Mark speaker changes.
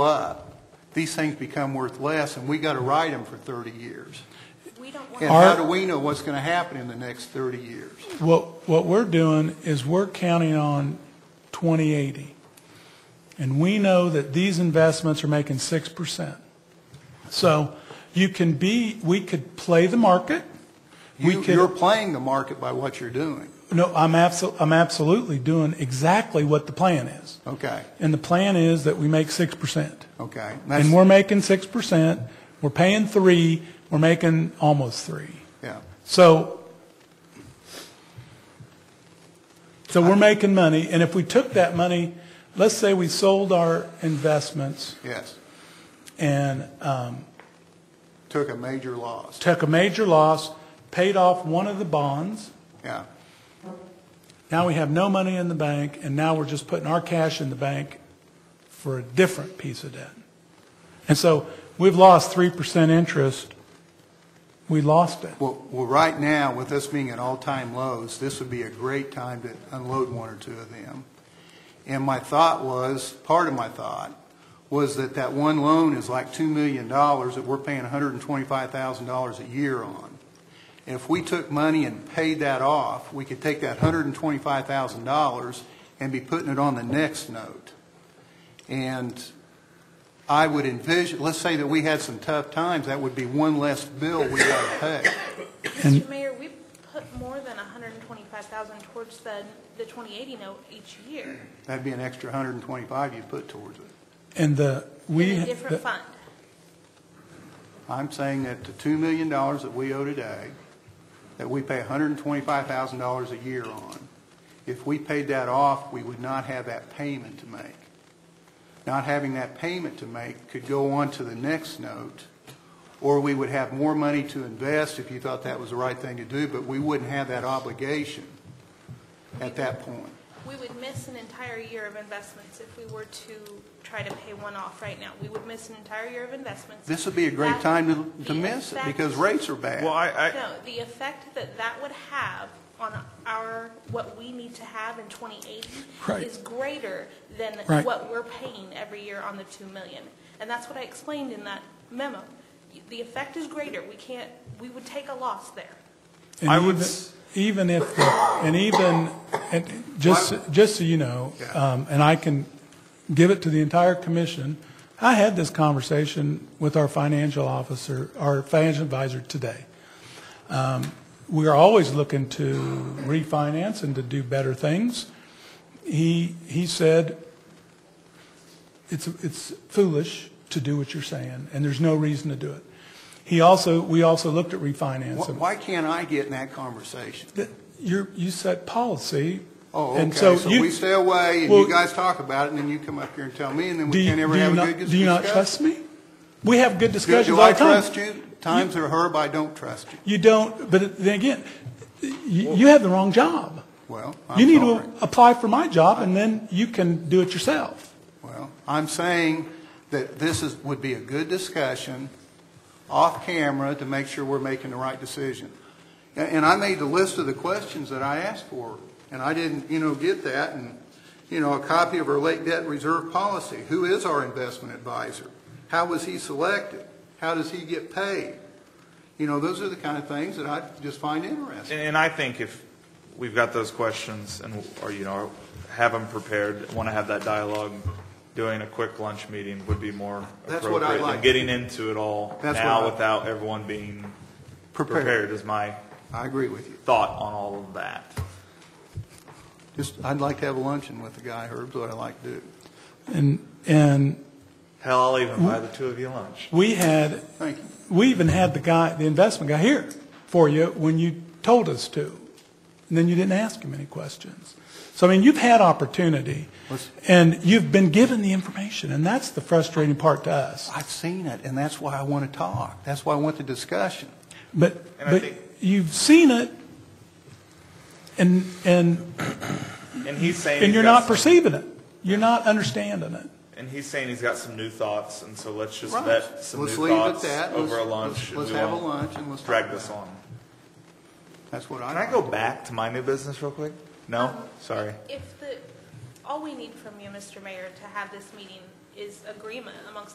Speaker 1: up, these things become worth less, and we got to ride them for 30 years.
Speaker 2: We don't
Speaker 1: And
Speaker 2: want,
Speaker 1: how
Speaker 2: to-
Speaker 3: Our-
Speaker 1: do we know what's going to happen in the next 30 years?
Speaker 3: What, what we're doing is we're counting on 2080. And we know that these investments are making 6%. So you can be, we could play the market. We
Speaker 1: You-
Speaker 3: could-
Speaker 1: You're playing the market by what you're doing.
Speaker 3: No, I'm abso, I'm absolutely doing exactly what the plan is.
Speaker 1: Okay,
Speaker 3: And the plan is that we make 6%.
Speaker 1: okay. That's-
Speaker 3: And we're making 6%, we're paying 3, we're making almost 3.
Speaker 1: Yeah,
Speaker 3: So, so we're making money, and if we took that money, let's say we sold our investments
Speaker 1: yes.
Speaker 3: and um,
Speaker 1: Took a major loss.
Speaker 3: took a major loss, paid off one of the bonds,
Speaker 1: Yeah,
Speaker 3: now we have no money in the bank, and now we're just putting our cash in the bank for a different piece of debt. And so we've lost 3% interest. We lost it.
Speaker 1: well, well, right now, with us being at all-time lows, this would be a great time to unload one or two of them. And my thought was, part of my thought, was that that one loan is like $2 million that we're paying $125,000 a year on. And if we took money and paid that off, we could take that $125,000 and be putting it on the next note. And I would envision, let's say that we had some tough times, that would be one less bill we got to pay.
Speaker 3: And-
Speaker 2: Mr. Mayor, we put more than 125,000 towards the, the 2080 note each year
Speaker 1: That'd be an extra 125 you put towards it.
Speaker 3: And the, we.
Speaker 2: in a
Speaker 3: the-
Speaker 2: different fund.
Speaker 1: I'm saying that the $2 million that we owe today, that we pay $125,000 a year on, if we paid that off, we would not have that payment to make. Not having that payment to make could go on to the next note, or we would have more money to invest if you thought that was the right thing to do, but we wouldn't have that obligation at that point.
Speaker 2: We would miss an entire year of investments if we were to try to pay one off right now. We would miss an entire year of investments.
Speaker 1: This would be a great
Speaker 2: That-
Speaker 1: time to, to
Speaker 2: the
Speaker 1: miss it
Speaker 2: effect-
Speaker 1: because rates are bad.
Speaker 4: Well, I, I,
Speaker 2: No, the effect that that would have on our, what we need to have in 2080
Speaker 3: Right.
Speaker 2: is greater than
Speaker 3: Right.
Speaker 2: what we're paying every year on the 2 million. And that's what I explained in that memo. The effect is greater. We can't, we would take a loss there.
Speaker 3: And
Speaker 4: I would
Speaker 3: even-
Speaker 4: s-
Speaker 3: Even if, the- and even, and just, just so you know,
Speaker 1: Yeah.
Speaker 3: um, and I can give it to the entire commission, I had this conversation with our financial officer, our financial advisor today. Um, We are always looking to refinance and to do better things. He, he said, it's, it's foolish to do what you're saying, and there's no reason to do it. He also, we also looked at
Speaker 1: Why-
Speaker 3: refinancing.
Speaker 1: Why can't I get in that conversation?
Speaker 3: that you're, you set policy.
Speaker 1: Oh,
Speaker 3: and
Speaker 1: okay,
Speaker 3: so
Speaker 1: so
Speaker 3: you-
Speaker 1: we stay away, and
Speaker 3: Well,
Speaker 1: you guys talk about it, and then you come up here and tell me, and then
Speaker 3: do
Speaker 1: we
Speaker 3: you-
Speaker 1: can't ever
Speaker 3: do you
Speaker 1: have a
Speaker 3: not-
Speaker 1: good discussion.
Speaker 3: Do you not trust me? We have good
Speaker 1: Do-
Speaker 3: discussions
Speaker 1: Do
Speaker 3: all
Speaker 1: I
Speaker 3: the time.
Speaker 1: trust you? Times are herb, I don't trust you.
Speaker 3: You don't, but then again, you, you have the wrong job.
Speaker 1: Well,
Speaker 3: You
Speaker 1: I'm
Speaker 3: need
Speaker 1: sorry.
Speaker 3: to apply for my job and then you can do it yourself.
Speaker 1: Well, I'm saying that this is, would be a good discussion off camera to make sure we're making the right decision. And- And I made the list of the questions that I asked for, and I didn't, you know, get that. And, you know, a copy of our late debt reserve policy. Who is our investment advisor? How was he selected? How does he get paid? You know, those are the kind of things that I just find interesting.
Speaker 4: and I think if we've got those questions and, or, you know, have them prepared, want to have that dialogue, doing a quick lunch meeting would be more
Speaker 1: That's what I
Speaker 4: appropriate than
Speaker 1: like.
Speaker 4: getting into it all
Speaker 1: That's what
Speaker 4: now
Speaker 1: I-
Speaker 4: without everyone being prepared is my
Speaker 1: I agree with you.
Speaker 4: thought on all of that.
Speaker 1: Just, I'd like to have a luncheon with the guy, Herb's what I like to do.
Speaker 3: And, and
Speaker 4: Hell, I'll even buy the two of you lunch.
Speaker 3: we had,
Speaker 1: Thank you.
Speaker 3: we even had the guy, the investment guy here for you when you told us to. And then you didn't ask him any questions. So, I mean, you've had opportunity
Speaker 1: Let's-
Speaker 3: and you've been given the information and that's the frustrating part to us.
Speaker 1: I've seen it, and that's why I want to talk. That's why I want the discussion.
Speaker 3: But,
Speaker 4: And I
Speaker 3: but
Speaker 4: think-
Speaker 3: you've seen it and, and,
Speaker 4: And he's saying.
Speaker 3: and
Speaker 4: he's
Speaker 3: you're
Speaker 4: got
Speaker 3: not
Speaker 4: some-
Speaker 3: perceiving it. You're not understanding it.
Speaker 4: And he's saying he's got some new thoughts, and so let's just
Speaker 1: Right.
Speaker 4: vet some new
Speaker 1: Let's leave it at
Speaker 4: thoughts
Speaker 1: that.
Speaker 4: over a
Speaker 1: Let's-
Speaker 4: lunch.
Speaker 1: let's-
Speaker 4: and
Speaker 1: let's
Speaker 4: we
Speaker 1: have a
Speaker 4: won't
Speaker 1: lunch and let's
Speaker 4: Drag
Speaker 1: talk
Speaker 4: this
Speaker 1: about
Speaker 4: on.
Speaker 1: That's what I.
Speaker 4: Can I go back to my new business real quick? No? Sorry.
Speaker 2: If the, all we need from you, Mr. Mayor, to have this meeting is agreement amongst